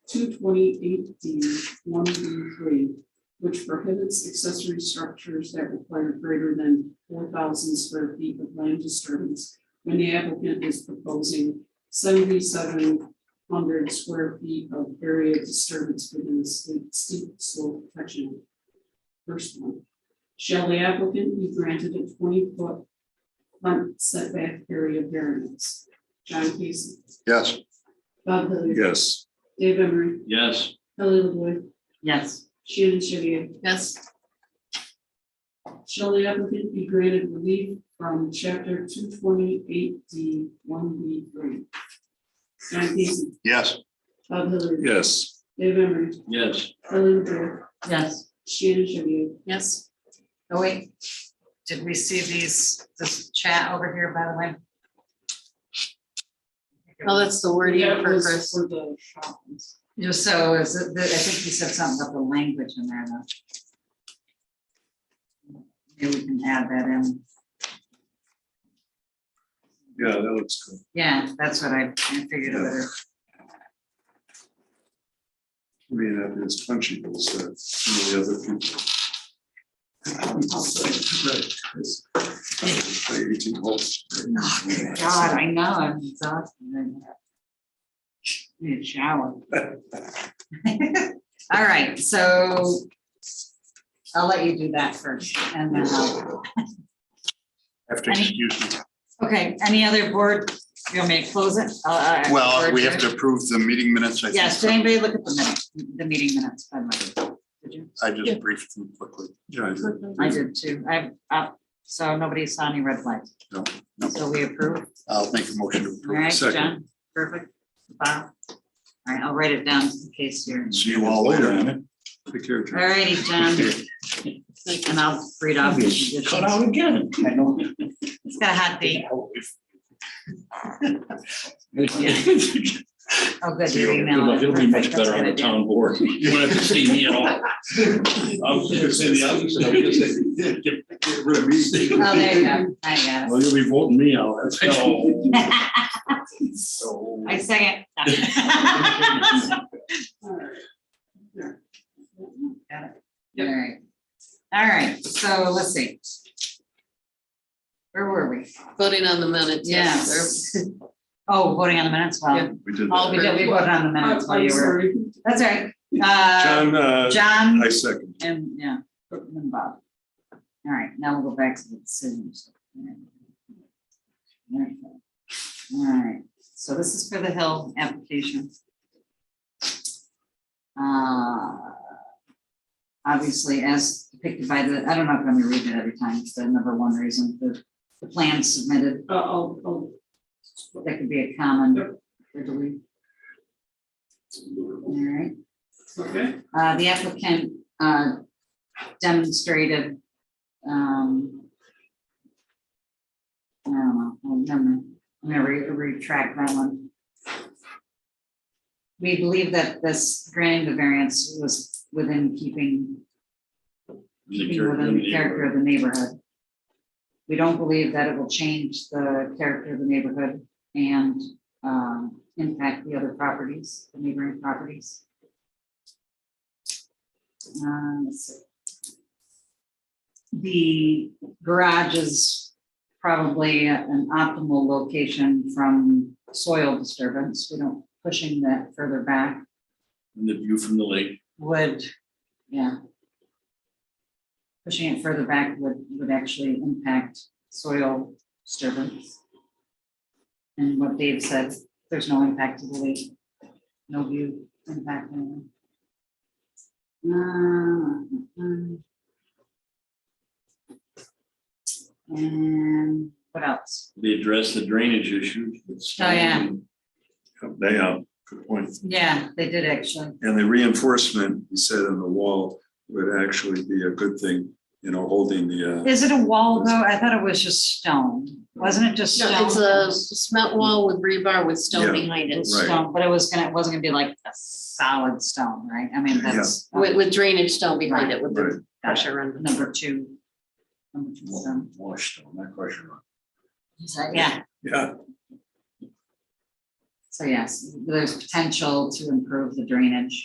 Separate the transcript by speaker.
Speaker 1: two twenty-eight D one B three, which prohibits accessory structures that require greater than four thousand square feet of land disturbance when the applicant is proposing seventy-seven hundred square feet of area disturbance within the steep- steep slope section. First one, shall the applicant be granted a twenty-foot front setback area variance? John Casey,
Speaker 2: Yes.
Speaker 1: Bob Hilliard.
Speaker 2: Yes.
Speaker 1: Dave Emery,
Speaker 3: Yes.
Speaker 1: Kelly LaVoy,
Speaker 4: Yes.
Speaker 1: Shannon Shavia.
Speaker 4: Yes.
Speaker 1: Shall the applicant be granted relief from chapter two twenty-eight D one B three? John Casey,
Speaker 2: Yes.
Speaker 1: Bob Hilliard.
Speaker 2: Yes.
Speaker 1: Dave Emery,
Speaker 3: Yes.
Speaker 1: Kelly LaVoy,
Speaker 4: Yes.
Speaker 1: Shannon Shavia.
Speaker 4: Yes. Oh, wait. Did we see these, this chat over here, by the way?
Speaker 5: Oh, that's the wording
Speaker 1: That
Speaker 5: for
Speaker 1: was
Speaker 5: Chris.
Speaker 1: For the shop ones.
Speaker 4: You know, so is it, I think you said something about the language in there though. Maybe we can add that in.
Speaker 2: Yeah, that looks good.
Speaker 4: Yeah, that's what I I figured it was.
Speaker 2: I mean, that is punchy, but it's, uh, some of the other people. Right, it's- Play Eighteen holes.
Speaker 4: God, I know, I'm exhausted. right now. Need a shower. All right, so I'll let you do that first and then I'll.
Speaker 2: After excuse me.
Speaker 4: Okay, any other board, you want me to close it? Uh, uh,
Speaker 2: Well, we
Speaker 4: board
Speaker 2: have to approve the meeting minutes. I think.
Speaker 4: Yes, did anybody look at the minute, the meeting minutes? by the way? Did you?
Speaker 2: I just briefed them quickly. Yeah.
Speaker 4: I did too. I, uh, so nobody saw any red flags.
Speaker 2: No, no.
Speaker 4: So we approve.
Speaker 2: I'll make a motion to
Speaker 4: All
Speaker 2: approve.
Speaker 4: right, John, perfect. Bob. All right, I'll write it down in case you're.
Speaker 2: See you all later. Take care.
Speaker 4: All righty, John. And I'll read off. the conditions.
Speaker 3: Cut out again. I know.
Speaker 4: It's got a hot date. Oh, good, your email.
Speaker 3: He'll be much
Speaker 4: Perfect, that's
Speaker 3: better on
Speaker 4: a
Speaker 3: the
Speaker 4: good idea.
Speaker 3: town board. You won't have to see me at all. I was gonna say the opposite. I was gonna say, yeah, get- get rid of me.
Speaker 4: Oh, there you go. I got it.
Speaker 3: Well, you'll be voting me out. That's all.
Speaker 4: I
Speaker 3: So.
Speaker 4: second.
Speaker 1: All right. There.
Speaker 4: Alright, alright, so let's see. Where were we?
Speaker 5: Voting on the minutes.
Speaker 4: Yes. Oh, voting on the minutes, well,
Speaker 2: We did
Speaker 4: all we
Speaker 2: that.
Speaker 4: did, we voted on the
Speaker 1: I'm
Speaker 4: minutes while
Speaker 1: I'm
Speaker 4: you were,
Speaker 1: sorry.
Speaker 4: that's all right. Uh,
Speaker 2: John, uh,
Speaker 4: John
Speaker 2: I second.
Speaker 4: and, yeah, Burton and Bob. Alright, now we'll go back to the decisions. Alright, so this is for the Hill application. Uh, Obviously, as depicted by the, I don't know if I'm gonna read it every time, it's the number one reason, the, the plan submitted,
Speaker 1: Uh, I'll, I'll,
Speaker 4: that could be a common, or delete. Alright.
Speaker 1: okay,
Speaker 4: Uh, the applicant, uh, demonstrated, um, I don't know, I'll never- I'm gonna re- retract that one. We believe that this granting the variance was within keeping keeping within the character of the neighborhood. We don't believe that it will change the character of the neighborhood and um, impact the other properties, the neighboring properties. Um, let's see. The garage is probably an optimal location from soil disturbance. We don't pushing that further back
Speaker 3: And the view from the lake.
Speaker 4: would, yeah. Pushing it further back would, would actually impact soil disturbance. And what Dave said, there's no impact to the lake, no view impact. on it. Uh, um, And what else?
Speaker 3: They address the drainage issue.
Speaker 4: Oh, yeah.
Speaker 2: They, uh, good point.
Speaker 4: Yeah, they did actually,
Speaker 2: And the reinforcement, he said on the wall, would actually be a good thing, you know, holding the, uh,
Speaker 4: is it a wall though? I thought it was just stone, wasn't it just stone?
Speaker 5: No, it's a cement wall with rebar with stone
Speaker 2: Yeah,
Speaker 5: behind it,
Speaker 2: Right.
Speaker 4: stone, but it was gonna, it wasn't gonna be like a solid stone, right? I mean, that's
Speaker 5: with, with drainage stone behind it with
Speaker 2: right,
Speaker 5: the pressure on.
Speaker 4: number two. Number two stone.
Speaker 3: Washed on that question.
Speaker 4: Yeah,
Speaker 2: yeah,
Speaker 4: so So yes, there's potential to improve the drainage.